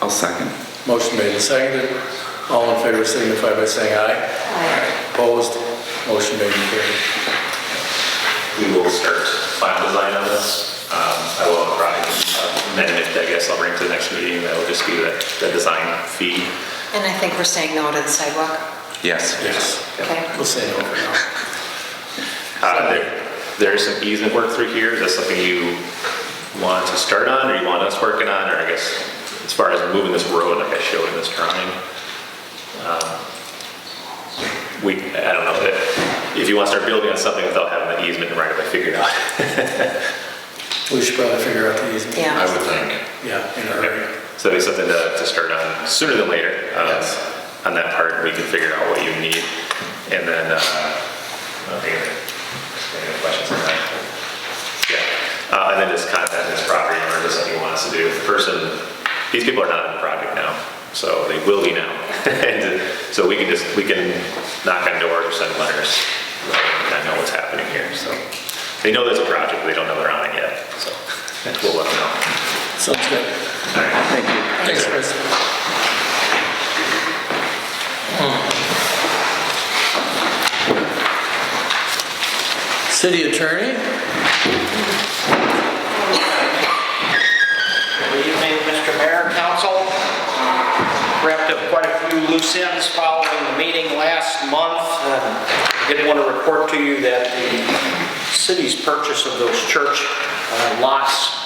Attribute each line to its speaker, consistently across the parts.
Speaker 1: I'll second.
Speaker 2: Motion made and seconded. All in favor signify by saying aye. Opposed? Motion made and carried.
Speaker 3: We will start final design on this. Um, I will provide an amendment, I guess I'll bring to the next meeting, that will just be the, the design fee.
Speaker 4: And I think we're saying no to the sidewalk.
Speaker 1: Yes.
Speaker 2: Yes.
Speaker 4: Okay.
Speaker 2: We'll say no for now.
Speaker 3: Uh, there- There is some easement work through here, is that something you want to start on, or you want us working on, or I guess, as far as moving this road, like I showed in this drawing? um, We, I don't know, if, if you want to start building on something without having the easement right away figured out.
Speaker 2: We should probably figure out the easement.
Speaker 4: Yeah. I
Speaker 3: would think.
Speaker 2: Yeah, in a hurry.
Speaker 3: So it'd be something to, to start on sooner than later. um,
Speaker 2: Yes.
Speaker 3: On that part, we can figure out what you need. And then, uh, oh, I don't think any other questions on that? Yeah. Uh, and then just contact this property owner, just what he wants to do. The person, these people are not on the project now, so they will be now. And so we can just, we can knock on doors or send letters. and I know what's happening here, so. They know there's a project, but they don't know they're on it yet, so we'll let them know.
Speaker 2: Sounds good.
Speaker 1: Thank you.
Speaker 2: Thanks, Chris. Hmm. City attorney?
Speaker 5: Good evening, Mr. Mayor, Council. Wrapped up quite a few loose ends following the meeting last month. and Did want to report to you that the city's purchase of those church uh, lots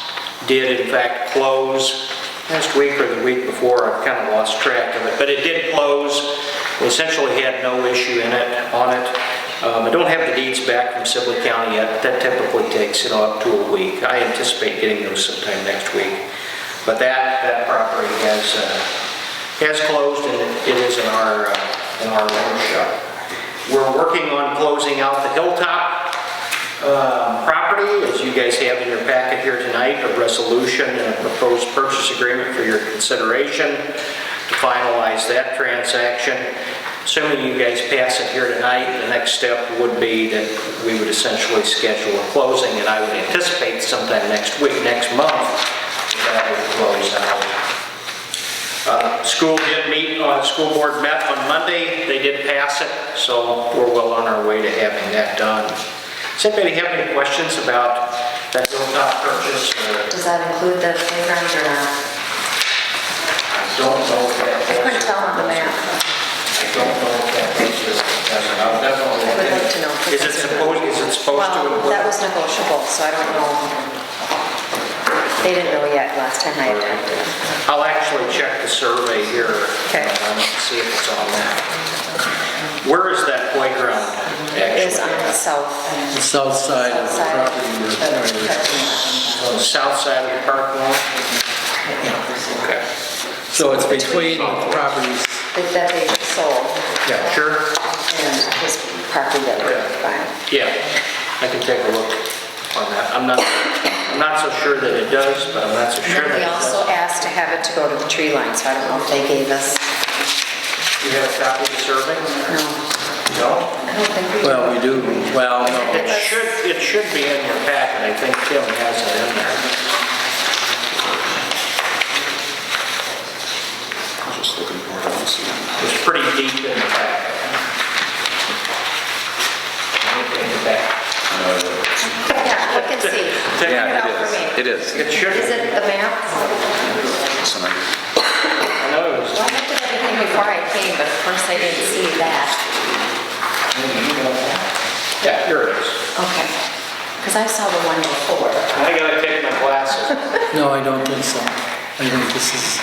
Speaker 5: did in fact close last week or the week before. I've kind of lost track of it, but it did close. We Essentially had no issue in it, on it. Um, I don't have the deeds back from Sibley County yet. That typically takes, you know, up to a week. I anticipate getting those sometime next week. But that, that property has, uh, has closed and it- it is in our, uh, in our loan shop. We're working on closing out the Hilltop uh, property, as you guys have in your packet here tonight, a resolution and a proposed purchase agreement for your consideration to finalize that transaction. Assuming you guys pass it here tonight, the next step would be that we would essentially schedule a closing, and I would anticipate sometime next week, next month, that would close out. Uh, School did meet, uh, school board met on Monday, they did pass it, so we're well on our way to having that done. Does anybody have any questions about that hilltop purchase? or-
Speaker 4: Does that include the playground or not?
Speaker 5: I don't know if that.
Speaker 4: I couldn't tell on the map.
Speaker 5: I don't know if that purchase, that's what I- that's
Speaker 4: I
Speaker 5: what I'm
Speaker 4: would
Speaker 5: looking
Speaker 4: like
Speaker 5: at.
Speaker 4: to know. if
Speaker 5: Is it
Speaker 4: that's
Speaker 5: supposed, is it supposed to?
Speaker 4: Well, that was negotiable, so I don't know. They didn't know yet last time I had talked to them.
Speaker 5: I'll actually check the survey here.
Speaker 4: Okay.
Speaker 5: um, and See if it's on that. Where is that playground
Speaker 4: It
Speaker 5: actually?
Speaker 4: was on the south
Speaker 2: The south side of the
Speaker 4: side.
Speaker 2: property.
Speaker 4: of
Speaker 2: we're
Speaker 4: the
Speaker 2: entering.
Speaker 4: parking
Speaker 5: On the south side of the park lawn? Okay.
Speaker 2: So it's between the properties.
Speaker 4: lot That they sold
Speaker 2: Yeah.
Speaker 5: Sure?
Speaker 4: and his property that we're buying.
Speaker 5: Yeah, I can take a look on that. I'm not, I'm not so sure that it does, but I'm not so
Speaker 4: And
Speaker 5: sure
Speaker 4: then
Speaker 5: that it
Speaker 4: we also
Speaker 5: does.
Speaker 4: asked to have it to go to the tree line, so I don't know if they gave us,
Speaker 5: You have a copy of the survey?
Speaker 4: no,
Speaker 5: No?
Speaker 4: I don't think we.
Speaker 2: Well, we do, well,
Speaker 5: It
Speaker 2: no.
Speaker 5: should, it should be in your packet. I think Tim has it in there.
Speaker 1: Just looking for it, I don't see it.
Speaker 5: It's pretty deep in the packet. In the back.
Speaker 4: Yeah, look and see. Print
Speaker 1: Yeah,
Speaker 4: out for
Speaker 1: it is.
Speaker 4: me.
Speaker 1: It is.
Speaker 5: It should,
Speaker 4: Is it the map?
Speaker 1: Somebody-
Speaker 5: I know it was.
Speaker 4: Well, I looked at everything before I came, but of course I didn't see that.
Speaker 5: Yeah, here it is.
Speaker 4: Okay. Because I saw the one before.
Speaker 5: I gotta take my glasses.
Speaker 2: No, I don't think so. I think this is,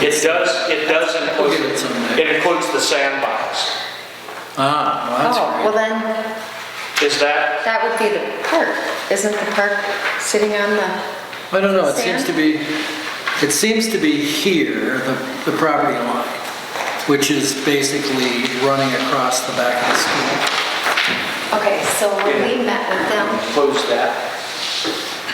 Speaker 5: It does, it does
Speaker 2: We'll get
Speaker 5: include,
Speaker 2: it someday.
Speaker 5: it includes the sandbox.
Speaker 2: ah, well, that's
Speaker 4: Oh, well
Speaker 2: great.
Speaker 4: then,
Speaker 5: Is that,
Speaker 4: that would be the park. Isn't the park sitting on the,
Speaker 2: I don't know, it seems
Speaker 4: Sand?
Speaker 2: to be, it seems to be here, the, the property line, which is basically running across the back of the school.
Speaker 4: okay, so when we met with them,
Speaker 5: includes that?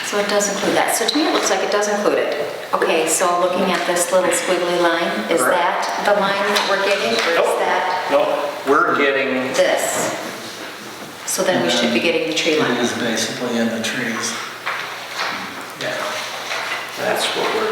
Speaker 4: so it does include that. So to me, it looks like it does include it. Okay, so looking at this little squiggly line, is
Speaker 5: Correct.
Speaker 4: that the line that we're getting or is
Speaker 5: Nope.
Speaker 4: that
Speaker 5: No, we're getting,
Speaker 4: this? So then we should be getting the tree line.
Speaker 2: It is basically in the trees. Yeah.
Speaker 5: that's what we're